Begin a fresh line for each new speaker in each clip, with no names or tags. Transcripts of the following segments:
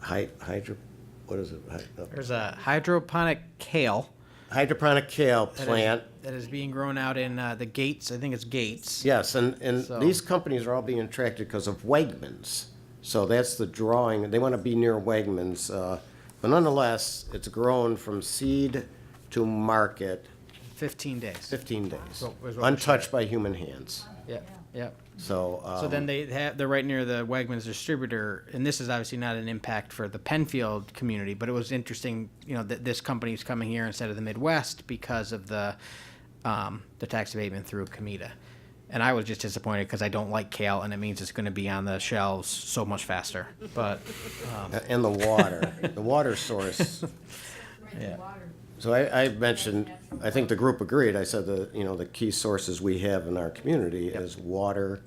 hy- hydro, what is it? Hy- uh,
There's a hydroponic kale
Hydroponic kale
that is-
plant.
that is being grown out in uh, the Gates. I think it's Gates.
Yes, and, and
So-
these companies are all being attracted because of Wegmans. So that's the drawing, they want to be near Wegmans. uh, But nonetheless, it's grown from seed to market,
15 days.
15 days,
So, is what we're
untouched by human hands.
Yep. Yep.
So.
So then
um,
they have, they're right near the Wegmans distributor, and this is obviously not an impact for the Penfield community, but it was interesting, you know, that this company's coming here instead of the Midwest because of the, um, the tax abatement through Comida. And I was just disappointed because I don't like kale, and it means it's gonna be on the shelves so much faster, but, um,
a- And the water, the water source.
Yeah.
Drinking water.
So I, I mentioned, I think the group agreed, I said the, you know, the key sources we have in our community is water,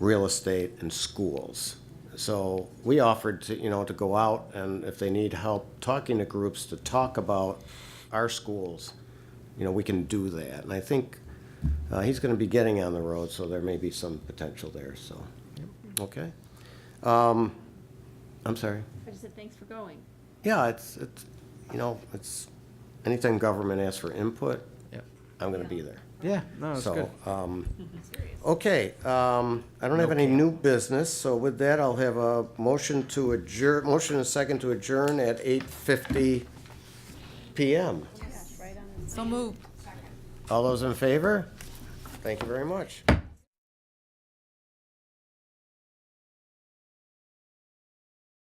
real estate, and schools. So we offered to, you know, to go out and if they need help talking to groups to talk about our schools, you know, we can do that. And I think, uh, he's gonna be getting on the road, so there may be some potential there, so, okay? Um, I'm sorry.
I just said, thanks for going.
Yeah, it's, it's, you know, it's, anytime government asks for input,
yep.
I'm gonna be there.
yeah, no, it's good.
So, um, okay, um, I don't have any new business, so with that, I'll have a motion to adjourn, motion and second to adjourn at eight fifty PM.
So moved.
All those in favor? Thank you very much.